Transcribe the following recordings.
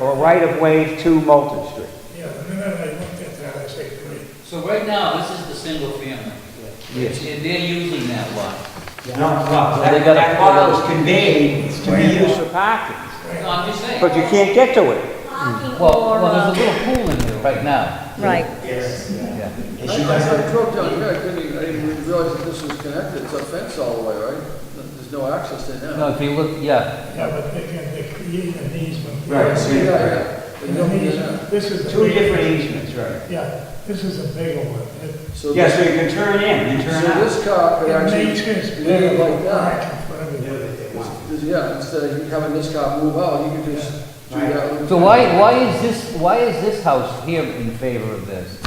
or right-of-way to Moulton Street. Yeah, the minute I looked at that, I said, great. So right now, this is the single family. Yes. And they're using that lot. No, no, They gotta that, that lot was conveyed to To be used be for parking, No, I'm just saying. but you can't get to it. Parking Well, or, well, uh, there's a little pool in there right now. right. Yeah. And I she doesn't, I drove down here, I didn't even, I didn't even realize that this was connected, it's a fence all the way, right? There's no access there now. No, if you look, yeah, Yeah, but they can, they create an easement. Right, so Yeah, you- yeah. They And don't an need easement, that. this is. two different easements, right? Yeah, this is a bigger one. It- So Yeah, this- so you can turn in and so turn out. this car could It actually makes sense, we leave it like that. parking for everybody. Yeah, instead of having this car move out, you could just do that. so why, why is this, why is this house here in favor of this?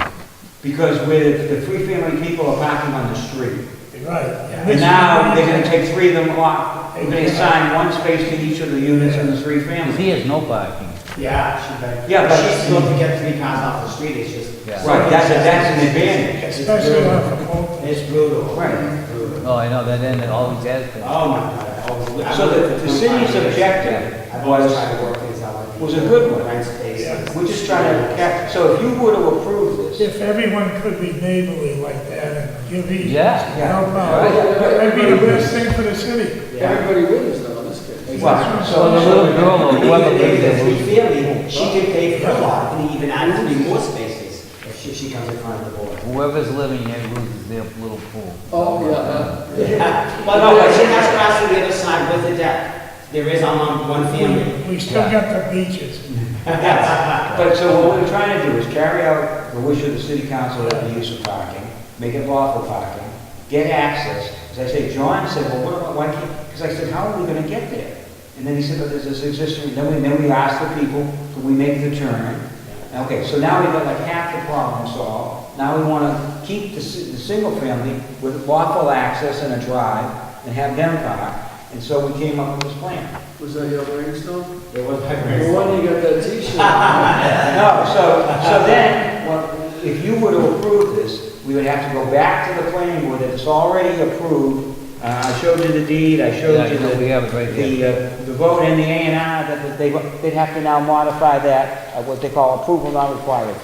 Because with the free family people are parking on the street. Right. And now they're gonna take three of them off. They're gonna assign one space to each of the units in the three Because families. he has no parking. Yeah, she better. Yeah, but- She's still to get three cars off the street, it's just. Yeah. Right, that's, that's an advantage. It's Especially brutal. off of Moulton. It's brutal. Right. Brutal. Oh, I know, that end, it always has been. Oh my God. I was- I So the- lived the for 25 city's years. objective I've always was- tried to work things out. was a good one. Rent spaces. We're just trying to, cap- so if you were to approve this, If everyone could be neighborly like that and give easements, Yeah. no problem. Right. That'd be the best thing for the city. Yeah. Everybody wins though in this case. well, So the so, little girl or whoever lives If there, we moves- feel it, she could pay for a lot, and even I would need more spaces if she, she comes in front of the board. whoever's living there loses their little pool. Oh, yeah, huh? Yeah. Well, no, but she has grass on the other side with the deck. There is on one family. We- We still got the beaches. but so what we're trying to do is carry out the wish of the city council of the use of parking, make it lawful parking, get access. As I say, John said, well, what about, why can't, because I said, how are we gonna get there? And then he said, but there's this existing, then we, then we asked the people, so we make the turn. Okay, so now we've got like half the problem solved. Now we wanna keep the, si- the single family with lawful access and a drive and have them park. And so we came up with this plan. Was that your brainstorm? There was my The grandson. one you got that t-shirt. No, so, so then, what- if you were to approve this, we would have to go back to the planning board that it's already approved. Uh, I showed you the deed, I Yeah, showed you you know, we the, have it right there. the, uh, the vote and the A and R, that that they, they'd have to now modify that, uh, what they call approval not required.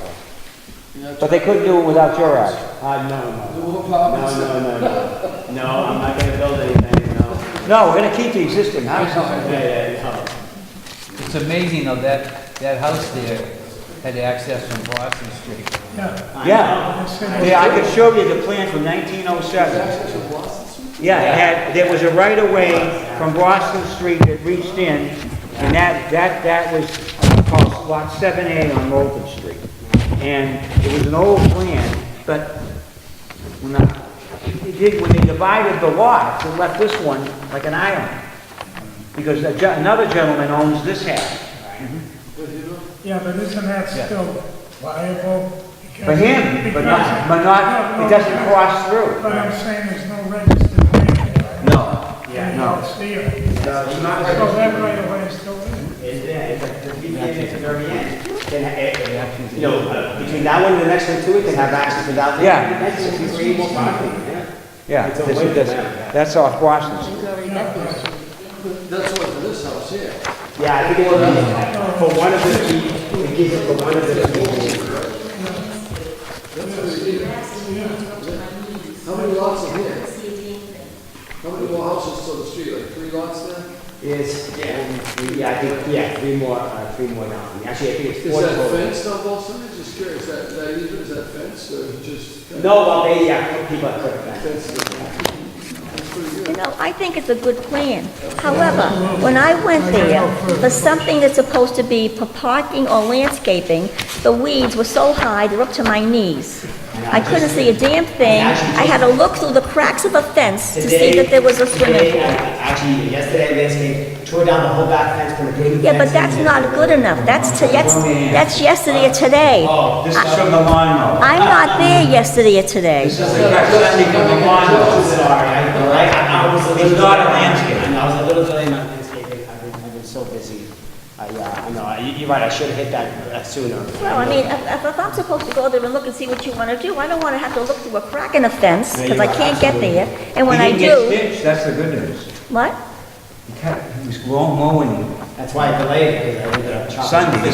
But they couldn't do it without your action. Uh, no, no. The little apartments. No, no, no, no. No, I'm not gonna build anything, no. No, we're gonna keep the existing house. Yeah, yeah, no. It's amazing though, that, that house there had access from Boston Street. Yeah. I Yeah. know. It's in the- Yeah, I could show you the plan from nineteen oh seven. Yeah, it had, there was a right-of-way from Boston Street that reached in, and that, that, that was called Lot 7A on Moulton Street. And it was an old plan, but when I, it did, when they divided the lots, it left this one like an island. Because a ge- another gentleman owns this half. Yeah, but isn't that still viable? For him, but not, but not, it doesn't cross through. But I'm saying there's no registered name. No. Yeah, no. See it. No, it's not So that right away is still in. It's there, it's at the beginning, it's the very end. Then, eh, eh, you know, uh, between that one and the next one too, it can have access without. the- Yeah. That's if you create more property, yeah. Yeah, It's a this way is, this- around. that's off Boston Street. That's what, for this house here. Yeah, I think it would be, for one of the, key- it gives it for one of the. key- How many lots are here? How many more houses to the street, like three lots there? Is, um, yeah, I think, yeah, three more, uh, three more down. Actually, I think it's Is four. that total. fenced on both sides, just curious, that, that either, is that fenced or just? No, well, they, yeah, people are clicking that. Fenced, that's pretty good. You know, I think it's a good plan. However, when I went there, for something that's supposed to be for parking or landscaping, the weeds were so high, they're up to my knees. I couldn't see a damn thing. I had to look through the cracks of the fence to see that there was a swimming Today, I- pool. uh, Actually, yesterday, landscape, tore down the whole back fence from the green. Yeah, fence but that's and- not good enough. That's, to- that's, that's yesterday or today. Oh, this is from the lawnmower. I'm not there yesterday or today. This is the guy standing on the I'm lawn. sorry, I, I, I was a little. It's not a landscape. I know, I was a little delayed on landscaping, I've been, I've been so busy. I, uh, I know, I- you- you're right, I should have hit that uh, sooner. Well, I mean, if, if- if I'm supposed to go there and look and see what you want to do, I don't want to have to look through a crack in a fence, Yeah, because you I are, can't get absolutely. there. And when I He didn't do, get stitched, that's the good news. what? He cut- He was long mowing That's why I delayed it, because I ended up chopping. Sunday,